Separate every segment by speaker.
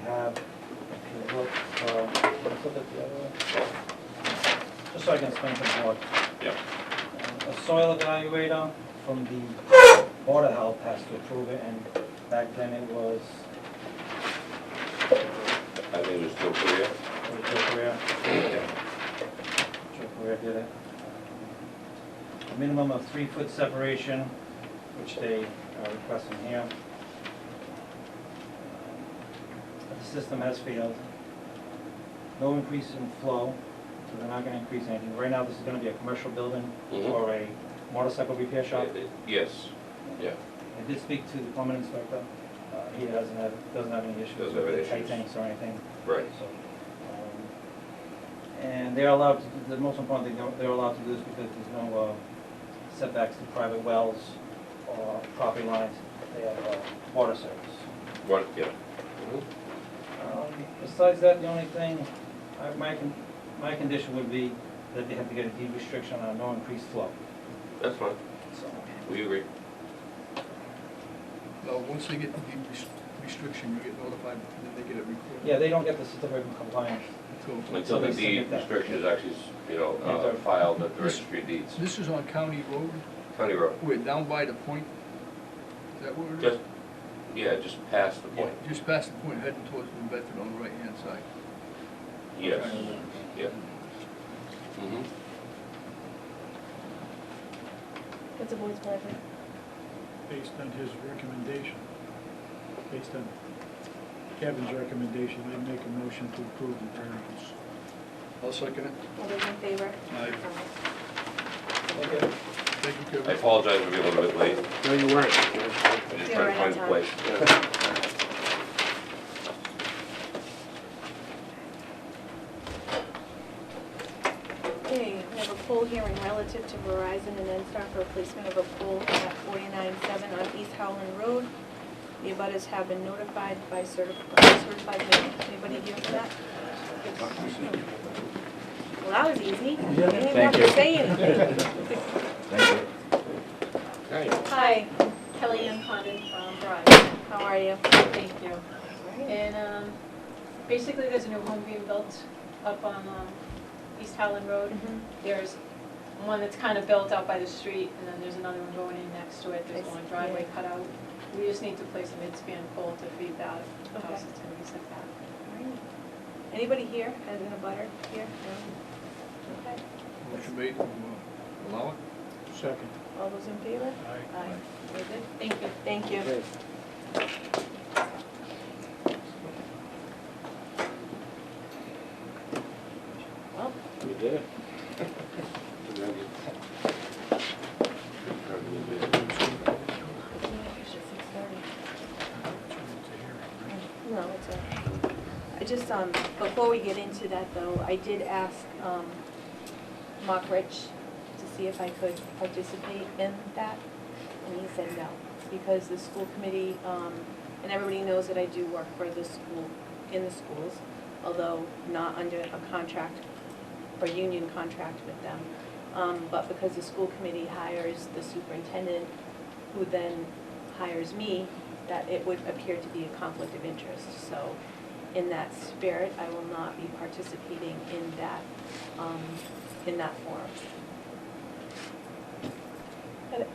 Speaker 1: flip uh, it the other way. Just so I can explain to the board.
Speaker 2: Yep.
Speaker 1: Um, A soil evaluator from the Board of Health has to approve it, and back then it was,
Speaker 2: I think it was still clear.
Speaker 1: it was Joe Correa. Joe Correa did it. A minimum of three-foot separation, which they are requesting here. But Uh, The system has failed. No increase in flow, so they're not gonna increase anything. Right now, this is gonna be a commercial building
Speaker 2: Mhm.
Speaker 1: or a motorcycle repair shop.
Speaker 2: It- it- Yes, yeah,
Speaker 1: I did speak to the plumbing inspector. Uh, He doesn't have, doesn't have any issues
Speaker 2: Doesn't have
Speaker 1: with the
Speaker 2: any
Speaker 1: tight
Speaker 2: issues.
Speaker 1: tanks or anything.
Speaker 2: right.
Speaker 1: So, um, And they're allowed, to do- the most important thing, they're- they're allowed to do this because there's no uh, setbacks to private wells or property lines. They have uh, water service.
Speaker 2: What, yeah.
Speaker 1: Um, Besides that, the only thing, I- my, con- my condition would be that they have to get a deed restriction on no increased flow.
Speaker 2: That's fine,
Speaker 1: So,
Speaker 2: we agree.
Speaker 3: No, once they get the deed res- restriction, you get notified, and then they get it recorded.
Speaker 1: Yeah, they don't get the certificate of compliance.
Speaker 3: So,
Speaker 2: Until the deed restriction is actually, you know, uh, filed at the registry of deeds.
Speaker 3: This is on County Road,
Speaker 2: County Road,
Speaker 3: we're down by the point, is that where it is?
Speaker 2: just, yeah, just past the point.
Speaker 3: Just past the point, heading towards New Bedford on the right-hand side.
Speaker 2: Yes, yeah. Mhm.
Speaker 4: What's the board's pleasure?
Speaker 5: based on his recommendation, based on Kevin's recommendation, I'd make a motion to approve the variance.
Speaker 3: I'll second it.
Speaker 4: All those in favor?
Speaker 3: Aye.
Speaker 1: Okay.
Speaker 3: Thank you,
Speaker 2: I
Speaker 3: Kevin.
Speaker 2: apologize for being a little bit late,
Speaker 6: No, you weren't.
Speaker 2: I just
Speaker 4: You're
Speaker 2: tried to
Speaker 4: right
Speaker 2: find
Speaker 4: on
Speaker 2: a place.
Speaker 4: Okay, we have a poll hearing relative to Verizon and Enstar for replacement of a pole at 497 on East Howland Road. The abutters have been notified by certified, certified mail. Anybody here for that? Well, that was easy. You didn't even have to say anything.
Speaker 2: Right.
Speaker 7: Hi, Kelly Ann Condon from Verizon,
Speaker 4: How are you?
Speaker 7: thank you. And um, basically, there's a new home being built up on um, East Howland Road.
Speaker 4: Mhm.
Speaker 7: There's one that's kind of built out by the street, and then there's another one going in next to it. There's
Speaker 4: I
Speaker 7: one
Speaker 4: see,
Speaker 7: driveway
Speaker 4: yeah.
Speaker 7: cut out. We just need to place a midspan pole to feed that
Speaker 4: Okay.
Speaker 7: house that's going to be set back.
Speaker 4: Anybody here as in a butter here? No? Okay,
Speaker 3: Motion made to uh, allow it?
Speaker 5: Second.
Speaker 4: all those in favor?
Speaker 5: Aye.
Speaker 4: Aye. Very good. Thank
Speaker 7: Thank you.
Speaker 4: you.
Speaker 6: Okay.
Speaker 4: Well,
Speaker 6: We did it.
Speaker 4: it's not official, six thirty. No, it's all right. I just, um, before we get into that though, I did ask, um, Mark Rich to see if I could participate in that, and he said no, because the school committee, um, and everybody knows that I do work for the school, in the schools, although not under a contract or union contract with them. Um, but because the school committee hires the superintendent, who then hires me, that it would appear to be a conflict of interest. So in that spirit, I will not be participating in that, um, in that forum.
Speaker 3: That's it?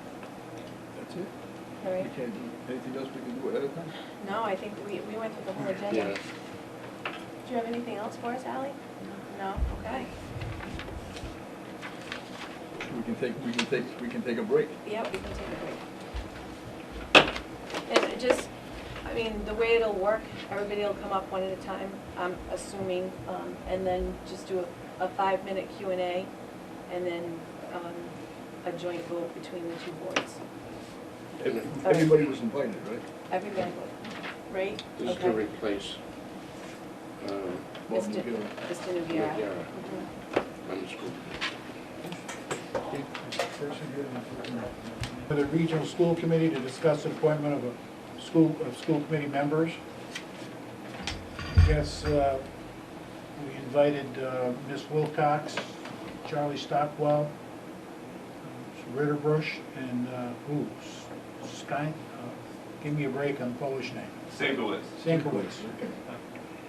Speaker 4: All
Speaker 3: We
Speaker 4: right?
Speaker 3: can't do anything else we can do at other time?
Speaker 4: No, I think we, we went through the whole agenda.
Speaker 6: Yeah.
Speaker 4: Do you have anything else for us, Ally? No? Okay.
Speaker 3: We can take, we can take, we can take a break.
Speaker 4: Yep, we can take a break. And it just, I mean, the way it'll work, everybody will come up one at a time, I'm assuming, um, and then just do a, a five-minute Q and A, and then, um, a joint vote between the two boards.
Speaker 3: Everybody was invited, right?
Speaker 4: Everybody would, right?
Speaker 6: This is to
Speaker 4: Okay.
Speaker 6: replace, um,
Speaker 3: Bob
Speaker 4: Mr.
Speaker 3: McGill.
Speaker 4: Mr. Nugiera.
Speaker 6: Yara
Speaker 4: Mhm.
Speaker 6: on the school.
Speaker 5: For the regional school committee to discuss the appointment of a school, of school committee members. I guess uh, we invited uh, Ms. Wilcox, Charlie Stockwell, uh, Ritterbusch, and uh, who? Sky, uh, give me a break on Polish name.
Speaker 2: Singlets.
Speaker 5: Sienkiewicz.